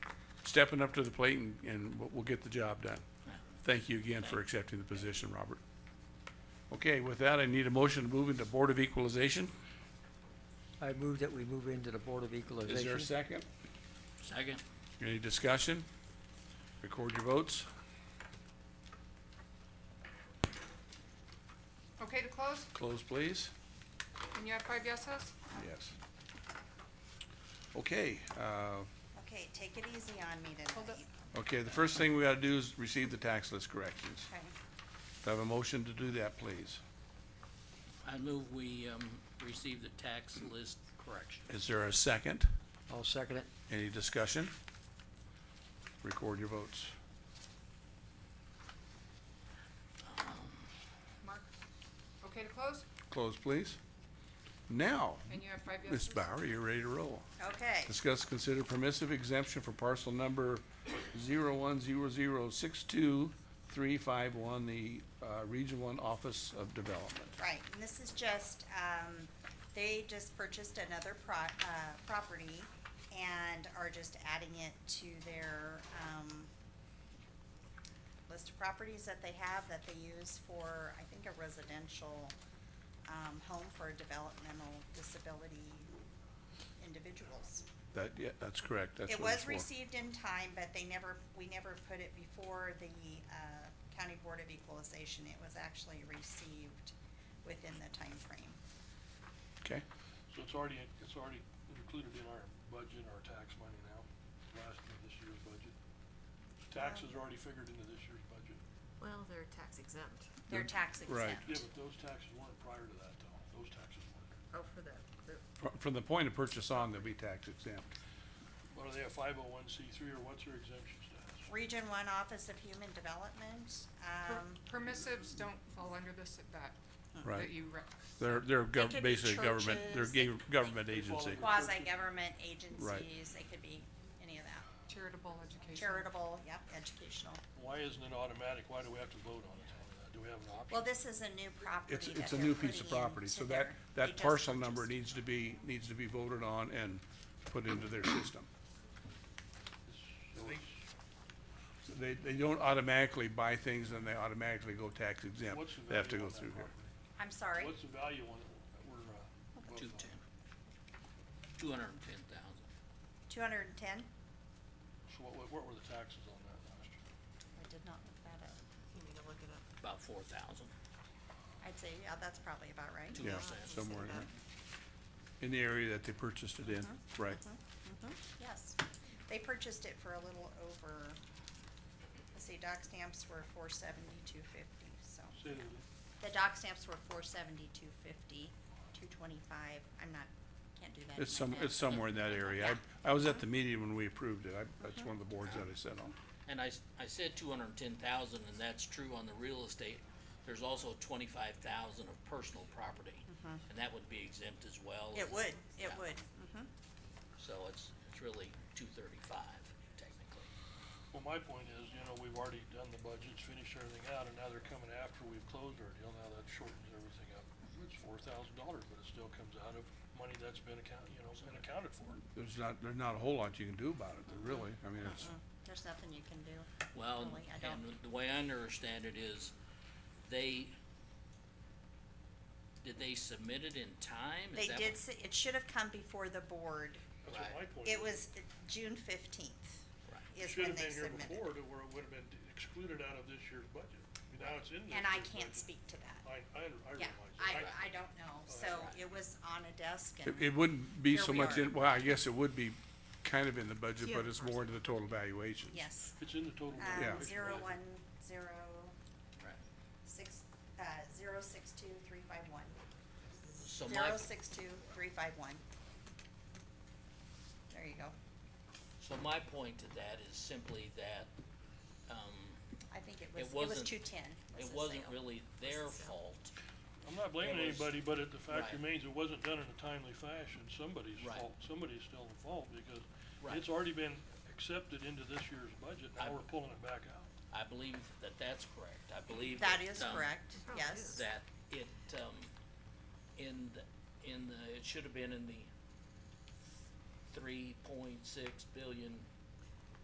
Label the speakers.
Speaker 1: stepping up to the plate and, and we'll- we'll get the job done. Thank you again for accepting the position, Robert. Okay, with that, I need a motion to move into Board of Equalization.
Speaker 2: I move that we move into the Board of Equalization.
Speaker 1: Is there a second?
Speaker 3: Second.
Speaker 1: Any discussion? Record your votes.
Speaker 4: Okay to close?
Speaker 1: Close, please.
Speaker 4: And you have five yeses?
Speaker 1: Yes. Okay, uh,
Speaker 5: Okay, take it easy on me tonight.
Speaker 4: Hold up.
Speaker 1: okay, the first thing we gotta do is receive the tax list corrections.
Speaker 5: Okay.
Speaker 1: Do I have a motion to do that, please?
Speaker 3: I move we, um, receive the tax list correction.
Speaker 1: Is there a second?
Speaker 2: I'll second it.
Speaker 1: Any discussion? Record your votes.
Speaker 4: Mark? Okay to close?
Speaker 1: Close, please. Now,
Speaker 4: And you have five
Speaker 1: Ms.
Speaker 4: yeses?
Speaker 1: Bauer, you're ready to roll.
Speaker 5: Okay,
Speaker 1: Discuss, consider permissive exemption for parcel number zero one zero zero six two three five one, the, uh, Region One Office of Development.
Speaker 5: right, and this is just, um, they just purchased another pro- uh, property and are just adding it to their, um, list of properties that they have that they use for, I think, a residential, um, home for developmental disability individuals.
Speaker 1: That, yeah, that's correct, that's
Speaker 5: It
Speaker 1: what it's
Speaker 5: was
Speaker 1: for.
Speaker 5: received in time, but they never, we never put it before the, uh, County Board of Equalization. It was actually received within the time frame.
Speaker 1: Okay,
Speaker 6: So it's already, it's already included in our budget, our tax money now, last year, this year's budget. Taxes are already figured into this year's budget.
Speaker 7: Well, they're tax exempt.
Speaker 5: They're tax
Speaker 1: right.
Speaker 5: exempt.
Speaker 6: Yeah, but those taxes weren't prior to that though. Those taxes weren't.
Speaker 7: Oh, for the, the,
Speaker 1: Fr- From the point of purchase on, they'll be tax exempt.
Speaker 6: What are they, a five oh one C three or what's their exemption status?
Speaker 5: Region One Office of Human Development,
Speaker 4: Per-
Speaker 5: um,
Speaker 4: Permissives don't fall under this, that,
Speaker 1: Right.
Speaker 4: that you rec-
Speaker 1: They're, they're gov-
Speaker 5: could be
Speaker 1: basically government, they're
Speaker 5: churches, they-
Speaker 1: ga- government
Speaker 6: they fall
Speaker 1: agency.
Speaker 6: under-
Speaker 5: quasi-government agencies, they could be any of that.
Speaker 4: charitable education.
Speaker 5: Charitable, yep, educational.
Speaker 6: Why isn't it automatic? Why do we have to vote on it? Do we have an option?
Speaker 5: Well, this is a new
Speaker 1: It's,
Speaker 5: property that
Speaker 1: it's a
Speaker 5: they're
Speaker 1: new piece of
Speaker 5: putting
Speaker 1: property,
Speaker 5: into
Speaker 1: so that,
Speaker 5: their- they
Speaker 1: that
Speaker 5: just
Speaker 1: parcel number
Speaker 5: purchased.
Speaker 1: needs to be, needs to be voted on and put into their system.
Speaker 6: So it's-
Speaker 1: So They, they don't automatically buy things and they automatically go tax exempt.
Speaker 6: What's the
Speaker 1: They have to go
Speaker 6: value on that
Speaker 1: through here.
Speaker 6: property?
Speaker 5: I'm sorry,
Speaker 6: What's the value on it that we're, uh,
Speaker 3: Two
Speaker 6: voting on?
Speaker 3: ten. Two hundred and ten thousand.
Speaker 5: two hundred and ten?
Speaker 6: So what, what were the taxes on that last year?
Speaker 5: I did not look that up.
Speaker 7: you need to look it up.
Speaker 3: About four thousand.
Speaker 5: I'd say, yeah, that's probably about right.
Speaker 3: Two
Speaker 1: Yeah,
Speaker 3: percent.
Speaker 1: somewhere in
Speaker 7: About-
Speaker 1: there. In the area that they purchased it in,
Speaker 5: Uh-huh,
Speaker 1: right.
Speaker 5: Yes, they purchased it for a little over, let's see, dock stamps were four seventy-two fifty, so.
Speaker 6: Say that again.
Speaker 5: The dock stamps were four seventy-two fifty, two twenty-five, I'm not, can't do that. in
Speaker 1: It's
Speaker 5: my
Speaker 1: some,
Speaker 5: head.
Speaker 1: it's somewhere in that area. I, I was at the meeting when we approved it. I, that's one of the boards that I sat on.
Speaker 3: And I, s- I said two hundred and ten thousand, and that's true on the real estate. There's also twenty-five thousand of personal property, and that would be exempt as well.
Speaker 5: Mm-hmm. It would, it
Speaker 3: Yeah.
Speaker 5: would,
Speaker 3: So it's, it's really two thirty-five technically.
Speaker 6: Well, my point is, you know, we've already done the budgets, finished everything out, and now they're coming after we've closed our deal, now that shortens everything up. It's four thousand dollars, but it still comes out of money that's been account, you know, been accounted for.
Speaker 1: There's not, there's not a whole lot you can do about it, there really. I mean, it's,
Speaker 5: there's nothing you can do.
Speaker 3: Well,
Speaker 5: Really, I
Speaker 3: and
Speaker 5: don't-
Speaker 3: the way I understand it is, they, did they submit it in time? Is
Speaker 5: They
Speaker 3: that
Speaker 5: did,
Speaker 3: what-
Speaker 5: s- it should have come before the board,
Speaker 6: That's what my point is.
Speaker 5: it was uh, June fifteenth
Speaker 3: Right.
Speaker 5: is when they submitted.
Speaker 6: Should have been here before, to where it would have been excluded out of this year's budget, now it's in this
Speaker 5: And I
Speaker 6: year's
Speaker 5: can't
Speaker 6: budget.
Speaker 5: speak to that.
Speaker 6: I, I, I
Speaker 5: Yeah,
Speaker 6: realize
Speaker 5: I,
Speaker 6: that.
Speaker 5: I don't know, so it was on a desk
Speaker 1: it,
Speaker 5: and,
Speaker 1: it wouldn't be
Speaker 5: Here
Speaker 1: so
Speaker 5: we
Speaker 1: much
Speaker 5: are.
Speaker 1: in, well, I guess it would be kind of in the budget,
Speaker 7: Yeah,
Speaker 1: but
Speaker 7: of
Speaker 1: it's
Speaker 7: course.
Speaker 1: more into the total valuation.
Speaker 5: yes.
Speaker 6: It's in the total.
Speaker 5: Um,
Speaker 6: valuation,
Speaker 5: zero
Speaker 6: right?
Speaker 5: one, zero
Speaker 3: Right.
Speaker 5: six, uh, zero six two three five one.
Speaker 3: So my,
Speaker 5: Zero six two three five one. There you go.
Speaker 3: so my point to that is simply that, um,
Speaker 5: I think it
Speaker 3: It
Speaker 5: was, it was
Speaker 3: wasn't-
Speaker 5: two ten.
Speaker 3: it wasn't really their
Speaker 7: Was the sale.
Speaker 3: fault.
Speaker 6: I'm not
Speaker 3: It
Speaker 6: blaming
Speaker 3: was-
Speaker 6: anybody, but it, the fact
Speaker 3: Right.
Speaker 6: remains, it wasn't done in a timely fashion, somebody's
Speaker 3: Right.
Speaker 6: fault, somebody's still at fault, because
Speaker 3: Right.
Speaker 6: it's already been accepted into this year's budget,
Speaker 3: I-
Speaker 6: now we're pulling it back out.
Speaker 3: I believe that that's correct. I believe
Speaker 5: That
Speaker 3: that,
Speaker 5: is
Speaker 3: um,
Speaker 5: correct,
Speaker 7: It probably
Speaker 5: yes.
Speaker 7: is.
Speaker 3: That it, um, in the, in the, it should have been in the three point six billion